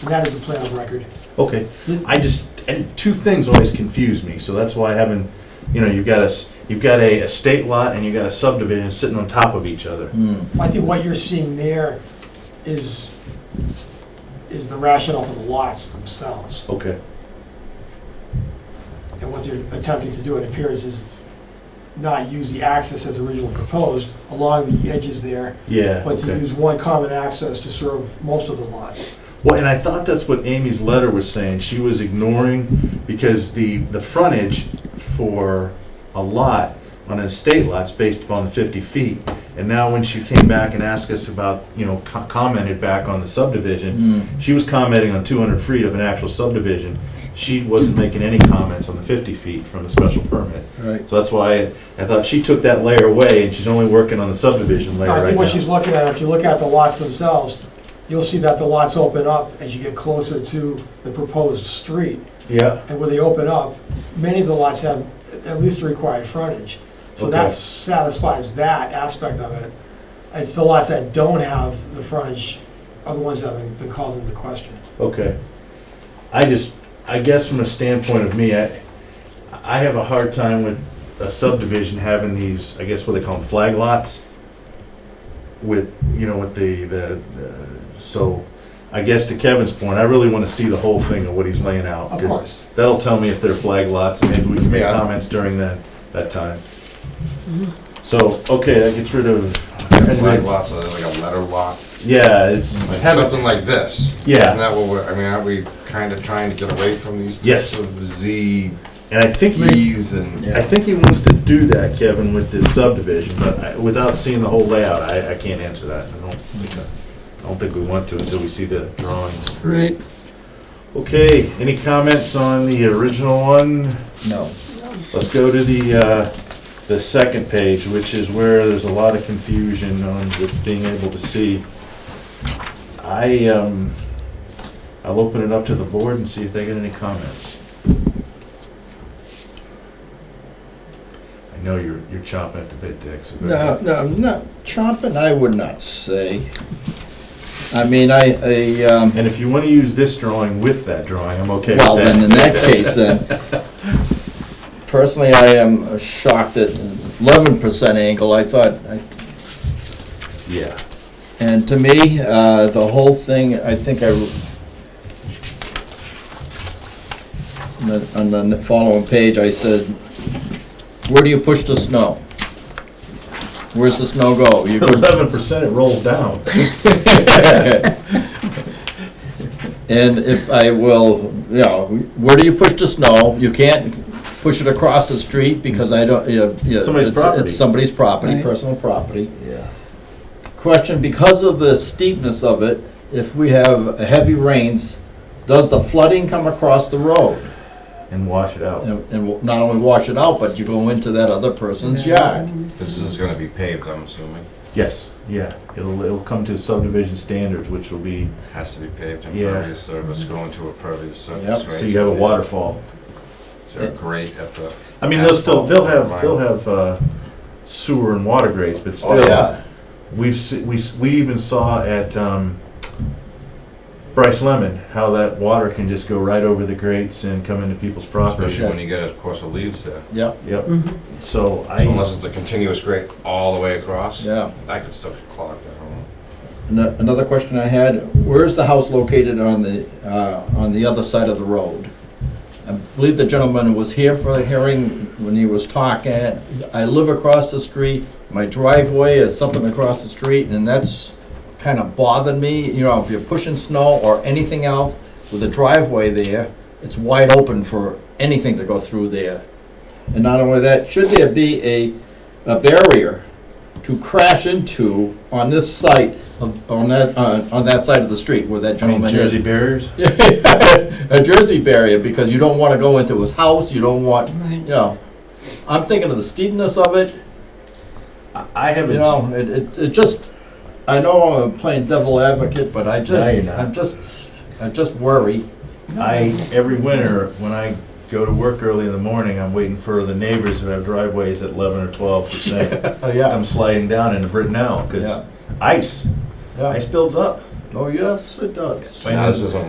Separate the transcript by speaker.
Speaker 1: And that is the plan of record.
Speaker 2: Okay, I just, and two things always confuse me, so that's why I haven't, you know, you've got a, s- you've got a estate lot and you've got a subdivision sitting on top of each other.
Speaker 3: Hmm.
Speaker 1: I think what you're seeing there is, is the rationale for the lots themselves.
Speaker 2: Okay,
Speaker 1: And what they're attempting to do, it appears, is not use the access as originally proposed along the edges there,
Speaker 2: yeah,
Speaker 1: but to
Speaker 2: okay.
Speaker 1: use one common access to serve most of the lots.
Speaker 2: Well, and I thought that's what Amy's letter was saying, she was ignoring, because the, the frontage for a lot on an estate lot's based upon the fifty feet, and now when she came back and asked us about, you know, co- commented back on the subdivision,
Speaker 3: Hmm.
Speaker 2: She was commenting on 200 feet of an actual subdivision. She wasn't making any comments on the 50 feet from the special permit.
Speaker 3: Right.
Speaker 2: So that's why I thought she took that layer away and she's only working on the subdivision layer
Speaker 1: I
Speaker 2: right
Speaker 1: think what she's
Speaker 2: now.
Speaker 1: looking at, if you look at the lots themselves, you'll see that the lots open up as you get closer to the proposed street.
Speaker 2: Yeah,
Speaker 1: And where they open up, many of the lots have at least the required frontage. So that
Speaker 2: Okay.
Speaker 1: satisfies that aspect of it. It's the lots that don't have the frontage are the ones that have been called into question.
Speaker 2: okay. I just, I guess from a standpoint of me, I, I have a hard time with a subdivision having these, I guess what they call them, flag lots. With, you know, with the, the, the- so I guess to Kevin's point, I really want to see the whole thing of what he's laying out.
Speaker 1: Of
Speaker 2: 'cause
Speaker 1: course.
Speaker 2: That'll tell me if they're flag lots, and maybe we can make
Speaker 3: Yeah.
Speaker 2: comments during that, that time. So, okay, that gets rid of.
Speaker 4: flag lot, so there's like a letter lot,
Speaker 2: Yeah, it's,
Speaker 4: like
Speaker 2: have it-
Speaker 4: something like this.
Speaker 2: Yeah.
Speaker 4: Isn't that what we're, I mean, aren't we kind of trying to get away from these
Speaker 2: Yes.
Speaker 4: types of Z,
Speaker 2: and I think, he-
Speaker 4: E's and,
Speaker 3: Yeah.
Speaker 2: I think he wants to do that, Kevin, with this subdivision, but I- without seeing the whole layout, I, I can't answer that. I don't think, I don't think we want to until we see the drawings.
Speaker 5: Right.
Speaker 2: Okay, any comments on the original one?
Speaker 3: No.
Speaker 2: Let's go to the, uh, the second page, which is where there's a lot of confusion on with being able to see. I, um, I'll open it up to the board and see if they get any comments. I know you're, you're chomping at the bit, Dick, so. go
Speaker 3: No,
Speaker 2: ahead.
Speaker 3: no, no, chomping, I would not say. I mean, I, I, um,
Speaker 2: And if you wanna use this drawing with that drawing, I'm okay with that.
Speaker 3: well, then in that case, then, personally, I am shocked at eleven percent angle, I thought, I-
Speaker 2: Yeah,
Speaker 3: and to me, uh, the whole thing, I think I, on the- on the following page, I said, where do you push the snow? Where's the snow go? You go
Speaker 2: eleven percent, it rolls down.
Speaker 3: And if I will, you know, where do you push the snow? You can't push it across the street because I don't, you know, you-
Speaker 2: Somebody's
Speaker 3: it's-
Speaker 2: property.
Speaker 3: It's somebody's property,
Speaker 5: Right.
Speaker 3: personal property.
Speaker 2: Yeah.
Speaker 3: Question, because of the steepness of it, if we have heavy rains, does the flooding come across the road?
Speaker 2: And wash it out.
Speaker 3: And and not only wash it out, but you go into that other person's yard.
Speaker 4: this is gonna be paved, I'm assuming,
Speaker 2: Yes, yeah, it'll, it'll come to subdivision standards, which will be
Speaker 4: has to be paved,
Speaker 2: Yeah.
Speaker 4: impervious surface, going to a pervious surface,
Speaker 3: Yep.
Speaker 4: right?
Speaker 2: So you have a waterfall.
Speaker 4: So great at the,
Speaker 2: I mean, they'll still, they'll have, they'll have uh, sewer and water grates, but
Speaker 4: Oh,
Speaker 2: still,
Speaker 3: Yeah,
Speaker 2: we've, se- we, s- we even saw at um, Bryce Lemon, how that water can just go right over the grates and come into people's property.
Speaker 4: especially when you get a course of leaves there.
Speaker 3: yeah,
Speaker 2: Yep,
Speaker 3: Mm-hmm.
Speaker 2: so I,
Speaker 4: So Unless it's a continuous grate all the way across,
Speaker 3: yeah.
Speaker 4: that could still get clogged, I don't know.
Speaker 3: Ano- Another question I had, where is the house located on the, uh, on the other side of the road? I believe the gentleman was here for a hearing when he was talking. I live across the street, my driveway is something across the street, and that's kind of bothered me, you know, if you're pushing snow or anything else with a driveway there, it's wide open for anything to go through there. And not only that, should there be a, a barrier to crash into on this site, of- on that, uh, on that side of the street where that
Speaker 2: I mean,
Speaker 3: gentleman is?
Speaker 2: Jersey barriers,
Speaker 3: a Jersey barrier because you don't want to go into his house. You don't want, you
Speaker 5: Right.
Speaker 3: know. I'm thinking of the steepness of it.
Speaker 2: I I
Speaker 3: You
Speaker 2: haven't,
Speaker 3: know, it, it, it just. I know I'm playing devil advocate, but I just,
Speaker 2: you're not.
Speaker 3: I'm just, I just worry.
Speaker 2: I, every winter, when I go to work early in the morning, I'm waiting for the neighbors who have driveways at 11 or 12 percent.
Speaker 3: Oh yeah,
Speaker 2: I'm sliding down into Brittenell,
Speaker 3: Yeah.
Speaker 2: because ice,
Speaker 3: yeah.
Speaker 2: ice builds up.
Speaker 3: Oh yes, it does.
Speaker 2: Wait,
Speaker 4: Now, this isn't